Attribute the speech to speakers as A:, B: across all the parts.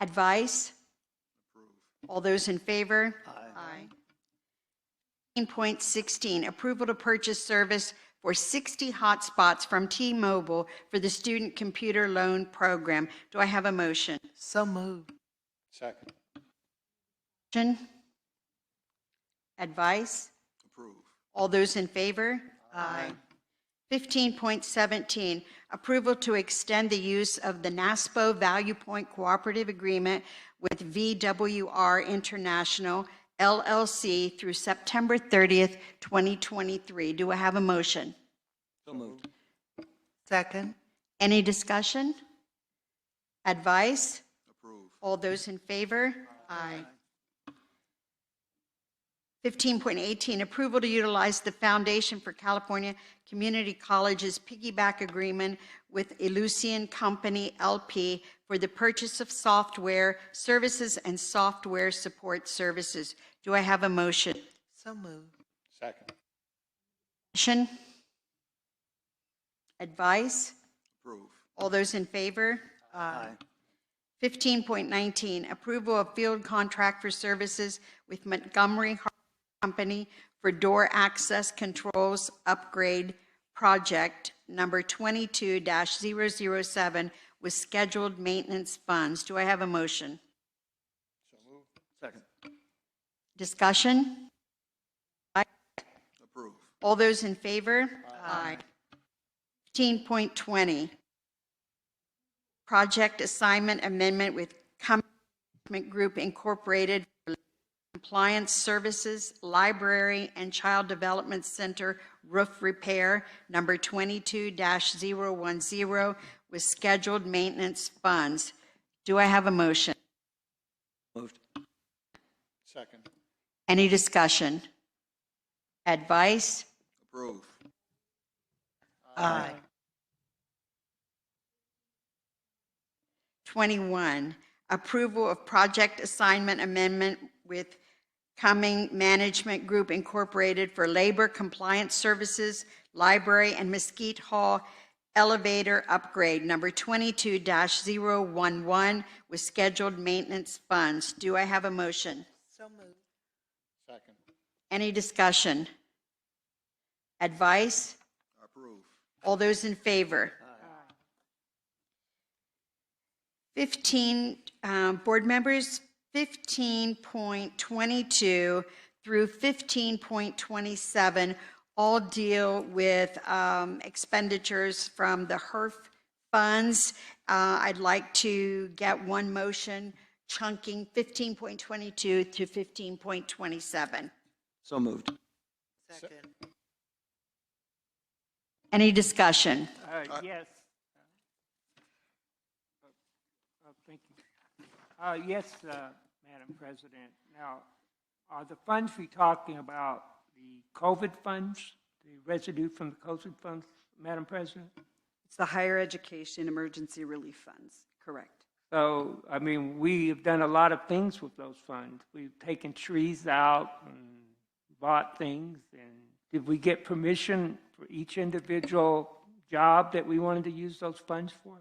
A: Advice? All those in favor? Aye. 16.16, approval to purchase service for 60 hotspots from T-Mobile for the Student Computer Loan Program. Do I have a motion?
B: So moved.
C: Second.
A: Motion? Advice?
C: Approve.
A: All those in favor? Aye. 15.17, approval to extend the use of the NASPO Value Point Cooperative Agreement with VWR International LLC through September 30th, 2023. Do I have a motion?
C: So moved.
B: Second.
A: Any discussion? Advice?
C: Approve.
A: All those in favor? Aye. 15.18, approval to utilize the Foundation for California Community Colleges piggyback agreement with Elucian Company LP for the purchase of software, services, and software support services. Do I have a motion?
B: So moved.
C: Second.
A: Motion? Advice?
C: Approve.
A: All those in favor?
B: Aye.
A: 15.19, approval of field contract for services with Montgomery Hardware Company for door access controls upgrade project number 22-007 with scheduled maintenance funds. Do I have a motion?
C: So moved. Second.
A: Discussion?
C: Approve.
A: All those in favor? Aye. 15.20, project assignment amendment with Cummins Group Incorporated for Compliance Services, Library, and Child Development Center Roof Repair, number 22-010, with scheduled maintenance funds. Do I have a motion?
C: Moved. Second.
A: Any discussion? Advice?
C: Approve.
B: Aye.
A: 21, approval of project assignment amendment with Cumming Management Group Incorporated for Labor Compliance Services, Library and Mesquite Hall Elevator Upgrade, number 22-011, with scheduled maintenance funds. Do I have a motion?
B: So moved.
C: Second.
A: Any discussion? Advice?
C: Approve.
A: All those in favor? 15, um, board members, 15.22 through 15.27 all deal with um, expenditures from the HERF funds. Uh, I'd like to get one motion chunking 15.22 to 15.27.
D: So moved.
B: Second.
A: Any discussion?
E: Uh, Yes. Uh, uh, Thank you. Uh, Yes, uh, Madam President. Now, are the funds we talking about the COVID funds, the residue from the COVID funds, Madam President?
F: It's the Higher Education Emergency Relief Funds, correct.
E: So, I mean, we have done a lot of things with those funds. We've taken trees out and bought things. And did we get permission for each individual job that we wanted to use those funds for?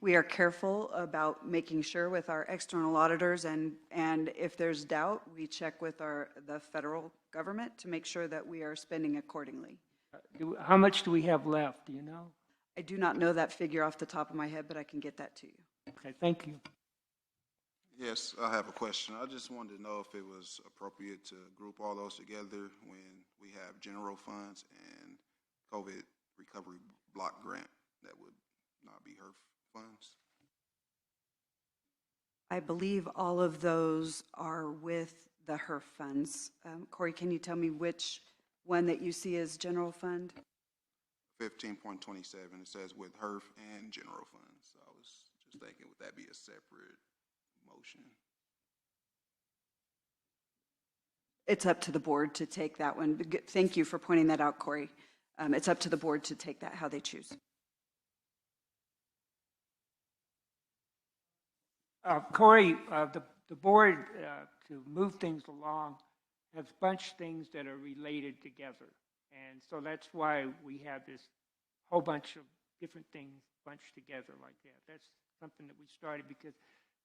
F: We are careful about making sure with our external auditors, and, and if there's doubt, we check with our, the federal government to make sure that we are spending accordingly.
E: Do- How much do we have left, do you know?
F: I do not know that figure off the top of my head, but I can get that to you.
E: Okay, thank you.
G: Yes, I have a question. I just wanted to know if it was appropriate to group all those together when we have general funds and COVID recovery block grant that would not be HERF funds.
F: I believe all of those are with the HERF funds. Um, Corey, can you tell me which one that you see as general fund?
G: Fifteen point twenty-seven, it says with HERF and general funds. So I was just thinking, would that be a separate motion?
F: It's up to the board to take that one. But good- Thank you for pointing that out, Corey. Um, It's up to the board to take that, how they choose.
E: Uh, Corey, uh, the, the board, uh, to move things along, has bunched things that are related together. And so that's why we have this whole bunch of different things bunched together like that. That's something that we started because